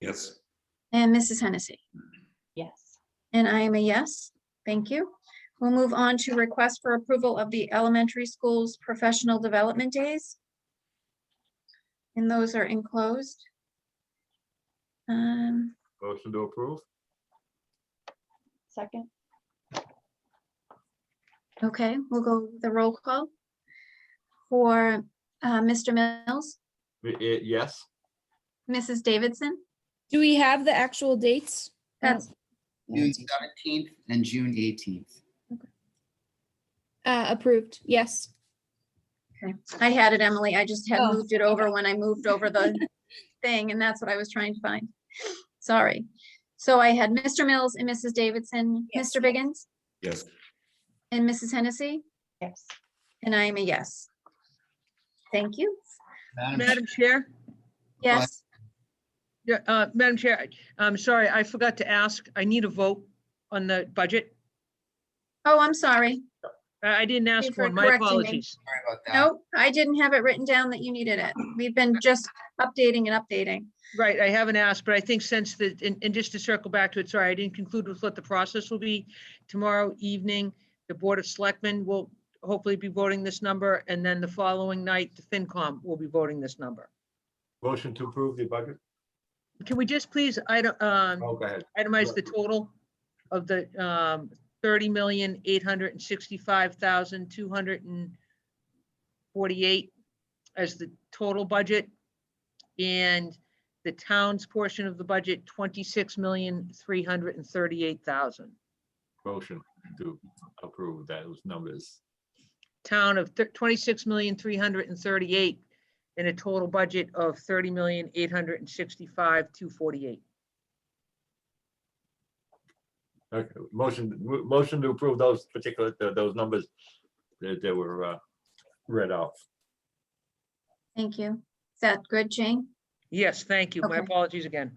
Yes. and Mrs. Hennessy. Yes. And I am a yes. Thank you. We'll move on to request for approval of the elementary school's professional development days. And those are enclosed. Um, Motion to approve? Second? okay, we'll go with the roll call. For uh, Mr. Mills, Y- y- Yes, Mrs. Davidson, Do we have the actual dates? that's June seventeenth and June eighteenth. Uh, approved, yes. Okay, I had it, Emily. I just had Oh, moved it over when I moved over the thing, and that's what I was trying to find. Sorry. So I had Mr. Mills and Mrs. Davidson, Yes. Mr. Biggins, Yes. and Mrs. Hennessy, Yes. and I am a yes. Thank you. Madam, Madam Chair, Yes, yeah, uh, Madam Chair, I'm sorry, I forgot to ask. I need a vote on the budget. oh, I'm sorry. I I didn't ask you for for, it. my correcting me. apologies. sorry about that. Nope, I didn't have it written down that you needed it. We've been just updating and updating. Right, I haven't asked, but I think since the, and, and just to circle back to it, sorry, I didn't conclude with what the process will be. Tomorrow evening, the Board of Selectmen will hopefully be voting this number, and then the following night, the FinCom will be voting this number. motion to approve the budget? Can we just please, item um, Oh, go ahead. itemize the total of the um thirty million, eight hundred and sixty-five thousand, two hundred and forty-eight as the total budget. And the town's portion of the budget, twenty-six million, three hundred and thirty-eight thousand. Motion to approve those numbers. Town of twenty-six million, three hundred and thirty-eight and a total budget of thirty million, eight hundred and sixty-five, two forty-eight. Okay, motion, mo- motion to approve those particular, th- those numbers that that were uh, read off. Thank you. Is that good, Jane? Yes, thank you. My Okay. apologies again.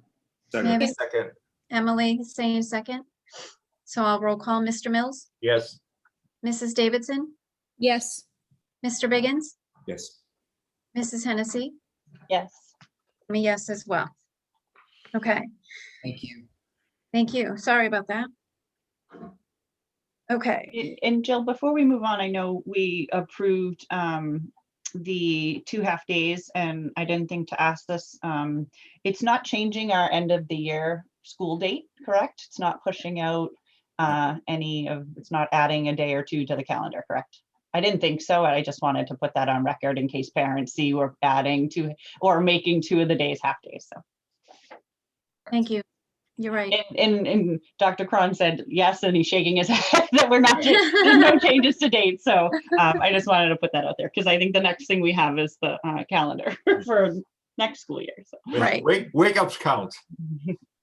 Second. Maybe. Second. Emily, same second. So I'll roll call Mr. Mills, Yes, Mrs. Davidson, Yes, Mr. Biggins, Yes. Mrs. Hennessy, Yes. I'm a yes as well. Okay, Thank you. thank you. Sorry about that. Okay, And- And Jill, before we move on, I know we approved um, the two half days and I didn't think to ask this. um, It's not changing our end of the year school date, correct? It's not pushing out uh, any of, it's not adding a day or two to the calendar, correct? I didn't think so. I just wanted to put that on record in case parents see we're adding two or making two of the days half days. So thank you. You're right. And, and, and Dr. Cron said yes, and he's shaking his head that we're not, there's no changes to date. So um, I just wanted to put that out there because I think the next thing we have is the uh, calendar for next school year. So. Right. wake, wake ups count.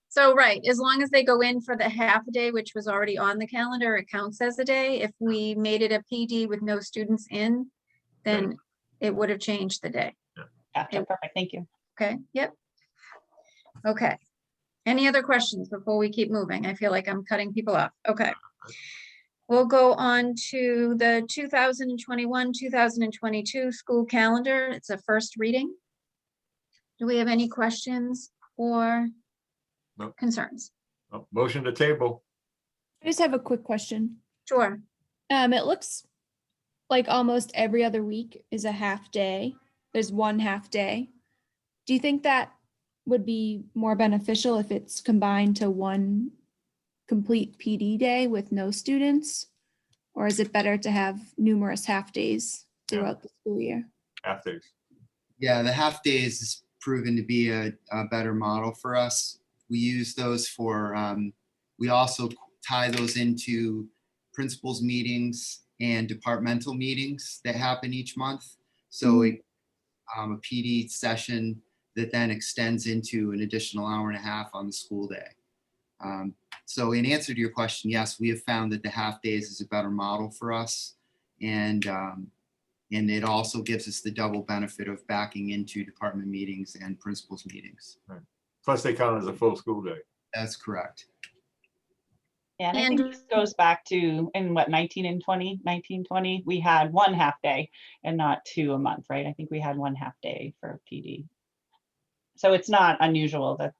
So, right, as long as they go in for the half a day, which was already on the calendar, it counts as a day. If we made it a PD with no students in, then it would have changed the day. Gotcha, perfect, thank you. Okay, yep. Okay. Any other questions before we keep moving? I feel like I'm cutting people off. Okay. We'll go on to the 2021, 2022 school calendar. It's a first reading. Do we have any questions or No. concerns? Oh, Motion to table. I just have a quick question. Sure. Um, it looks like almost every other week is a half day. There's one half day. Do you think that would be more beneficial if it's combined to one complete PD day with no students? Or is it better to have numerous half days Yeah. throughout the school year? After, Yeah, the half days has proven to be a, a better model for us. We use those for, um, we also tie those into principals meetings and departmental meetings that happen each month. So it, um, a PD session that then extends into an additional hour and a half on the school day. Um, so in answer to your question, yes, we have found that the half days is a better model for us. And, um, and it also gives us the double benefit of backing into department meetings and principals meetings. plus they count as a full school day. That's correct. Yeah, And I think And- this goes back to, in what, 19 and 20, 19, 20, we had one half day and not two a month, right? I think we had one half day for PD. So it's not unusual that